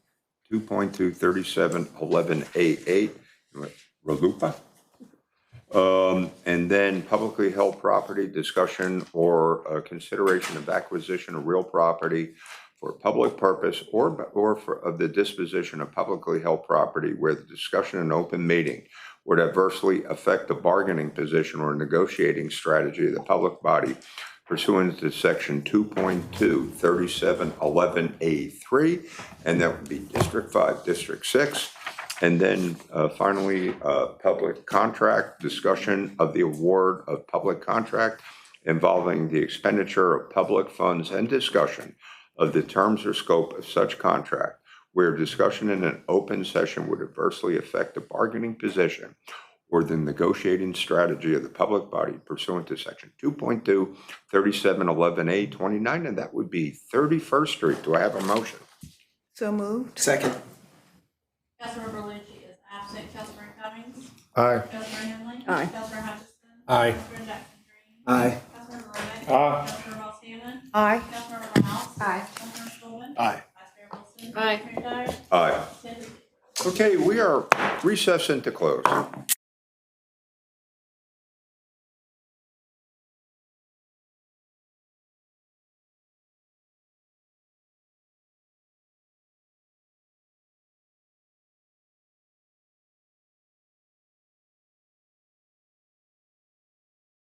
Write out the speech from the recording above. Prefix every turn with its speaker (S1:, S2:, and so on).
S1: 2.23711A8, RLUPA. Um, And then publicly held property discussion or uh, consideration of acquisition of real property for public purpose or, or for, of the disposition of publicly held property where the discussion in open meeting would adversely affect the bargaining position or negotiating strategy of the public body pursuant to section 2.2, 3711A3, and that would be District 5, District 6. And then uh, finally, uh, public contract, discussion of the award of public contract involving the expenditure of public funds and discussion of the terms or scope of such contract, where discussion in an open session would adversely affect the bargaining position or the negotiating strategy of the public body pursuant to section 2.2, 3711A 29, and that would be 31st Street. Do I have a motion?
S2: So moved.
S3: Second.
S4: Councilmember Lucci is absent. Councilmember Cummings?
S5: Aye.
S4: Councilmember Henley?
S2: Aye.
S4: Councilmember Hutchinson?
S3: Aye.
S4: Councilmember Jackson Green?
S3: Aye.
S4: Councilmember Rowland?
S5: Aye.
S4: Councilmember Ross Hammond?
S2: Aye.
S4: Councilmember Miles?
S2: Aye.
S4: Councilmember Schulman?
S3: Aye.
S4: Vice Mayor Wilson?
S2: Aye.
S4: Mayor Dyer?
S1: Aye.
S4: Seven zero.
S1: Okay, we are recessed into close.